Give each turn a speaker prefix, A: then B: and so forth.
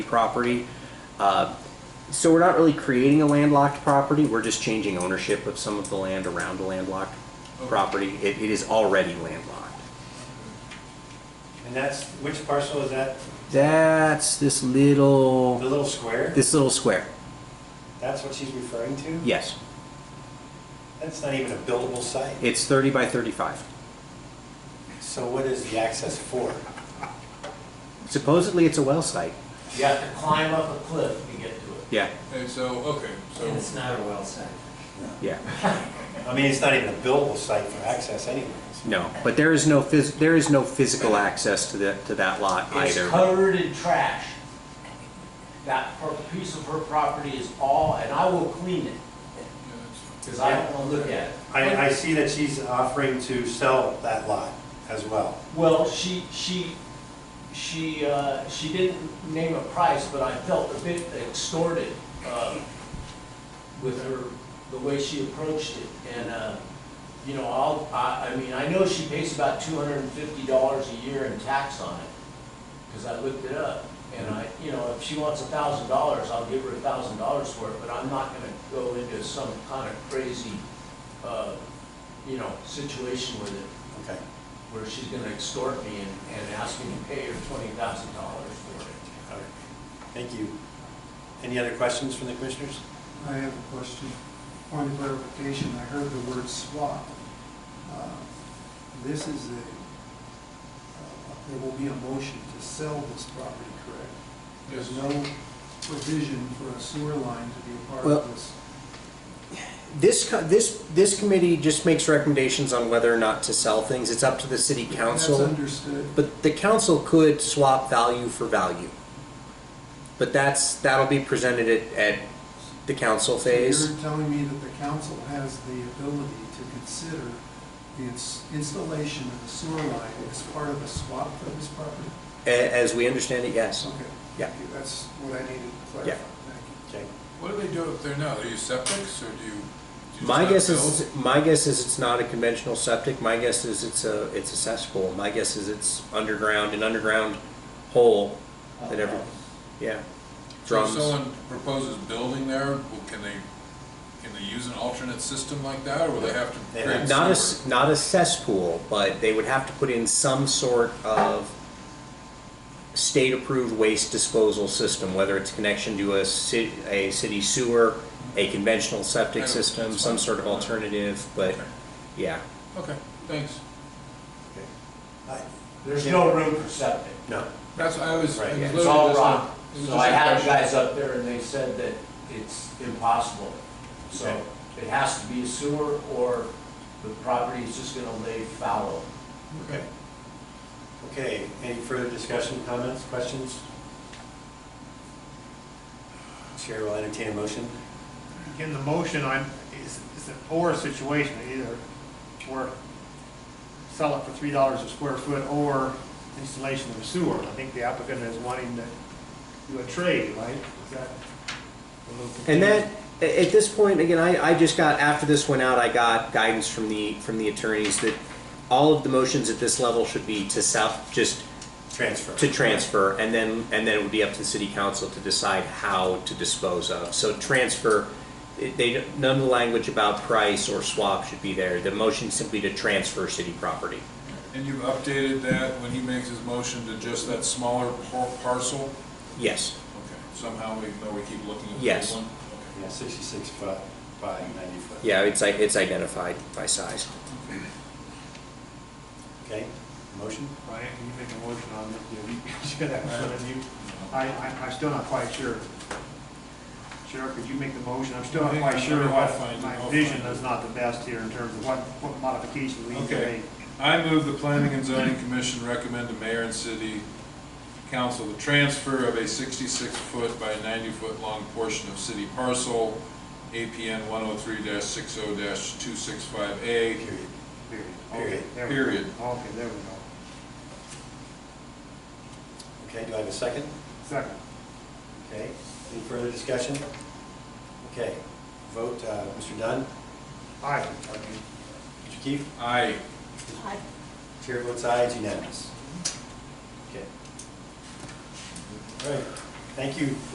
A: property. Uh, So we're not really creating a landlocked property, we're just changing ownership of some of the land around the landlocked property. It, it is already landlocked.
B: And that's, which parcel is that?
A: That's this
B: The
A: little,
B: little square?
A: this little square,
B: That's what she's referring to?
A: yes.
B: That's not even a buildable site.
A: It's thirty by thirty-five.
B: So what is the access for?
A: Supposedly it's a well site,
C: You have to climb up a cliff to get to it.
A: yeah,
D: Okay, so, okay,
C: And
D: so,
C: it's not a well site.
A: yeah,
B: I mean, it's not even a buildable site for access anyways.
A: no. But there is no phys, there is no physical access to the, to that lot
C: It's
A: either.
C: covered in trash. That per- piece of her property is all, and I will clean it,
D: yeah, that's-
C: because I don't want to look at it.
B: I, I see that she's offering to sell that lot as well.
C: Well, she, she, she, uh, she didn't name a price, but I felt a bit extorted, uh, with her, the way she approached it. And, uh, you know, I'll, I, I mean, I know she pays about two hundred and fifty dollars a year in tax on it, because I looked it up. And I, you know, if she wants a thousand dollars, I'll give her a thousand dollars for it, but I'm not gonna go into some kind of crazy, uh, you know, situation with it
B: Okay.
C: where she's gonna extort me and, and ask me to pay her twenty thousand dollars for it.
B: All right. Thank you. Any other questions from the commissioners?
E: I have a question. Point of clarification, I heard the word swap. Uh, This is a, uh, there will be a motion to sell this property, correct? There's
D: Yes.
E: no provision for a sewer line to be a part
A: Well-
E: of this.
A: This, co- this, this committee just makes recommendations on whether or not to sell things. It's up to the city
E: That's
A: council.
E: understood.
A: But the council could swap value for value. But that's, that'll be presented at, at the council
E: So
A: phase.
E: You're telling me that the council has the ability to consider the ins- installation of a sewer line as part of a swap for this property?
A: A- as we understand it, yes.
E: Okay.
A: Yeah.
E: Thank you. That's what I needed to
A: Yeah.
E: clarify. Thank you.
B: Okay.
D: What do they do up there now? Are you septics, or do you? do you just
A: My
D: not
A: guess
D: build?
A: is, my guess is it's not a conventional septic. My guess is it's a, it's a cesspool. My guess is it's underground, an underground hole that every, yeah.
D: So if
A: Drums.
D: someone proposes building there, well, can they, can they use an alternate system like that, or will they have to
B: They
D: create
B: have-
A: Not a,
D: sewer?
A: s- not a cesspool, but they would have to put in some sort of state-approved waste disposal system, whether it's connection to a city, a city sewer, a conventional septic
D: I don't-
A: system,
D: that's
A: some
D: fine.
A: sort of alternative, but,
D: Okay.
A: yeah.
D: Okay, thanks.
B: Hi.
C: There's no room for septic.
B: No.
D: That's, I was. I
B: Right,
D: was
B: yeah.
C: It's
D: literally
C: all
D: just-
C: rock.
D: it was
C: So
D: just
C: I
D: a
C: had the
D: question.
C: guys up there and they said that it's impossible. So it has to be a sewer or the property is just gonna lay fallow.
D: Okay.
B: Okay, any further discussion, comments, questions? Chair will entertain a motion.
F: In the motion, I'm, is, is an or situation, either or sell it for three dollars a square foot or installation of a sewer. I think the applicant is wanting to do a trade, right? Is that? a little confused?
A: And that, a- at this point, again, I, I just got, after this went out, I got guidance from the, from the attorneys that all of the motions at this level should be to south, just
B: Transfer.
A: to transfer, and then, and then it would be up to the city council to decide how to dispose of. So transfer, it- they, none of the language about price or swap should be there. The motion simply to transfer city property.
D: And you've updated that when he makes his motion to just that smaller par- parcel?
A: Yes,
D: Okay, somehow we, know we keep looking at the
A: Yes.
D: big one?
B: Yeah, sixty-six foot by ninety foot.
A: yeah, it's, i- it's identified by size.
B: Okay, motion?
F: Brian, can you make a motion on this? Yeah, we should have one of you. I, I, I'm still not quite sure. Sheriff, could you make the motion? I'm still not quite sure
D: I'll find
F: what,
D: it.
F: my
D: I'll
F: vision
D: find it.
F: is not the best here in terms of what, what modifications we need to
D: Okay.
F: make.
D: I move the Planning and Zoning Commission recommend to mayor and city council the transfer of a sixty-six foot by ninety-foot long portion of city parcel, APN one oh three six oh two six five A,
B: Period.
F: Period.
B: Period.
F: Okay, there we go.
D: period.
F: Okay, there we go.
B: Okay, do I have a second?
F: Second.
B: Okay, any further discussion? Okay, vote, uh, Mr. Dunn,
F: Aye.
B: Mr. Keefe,
D: Aye.
B: chair votes aye, it's unanimous. Okay. All right, Thank you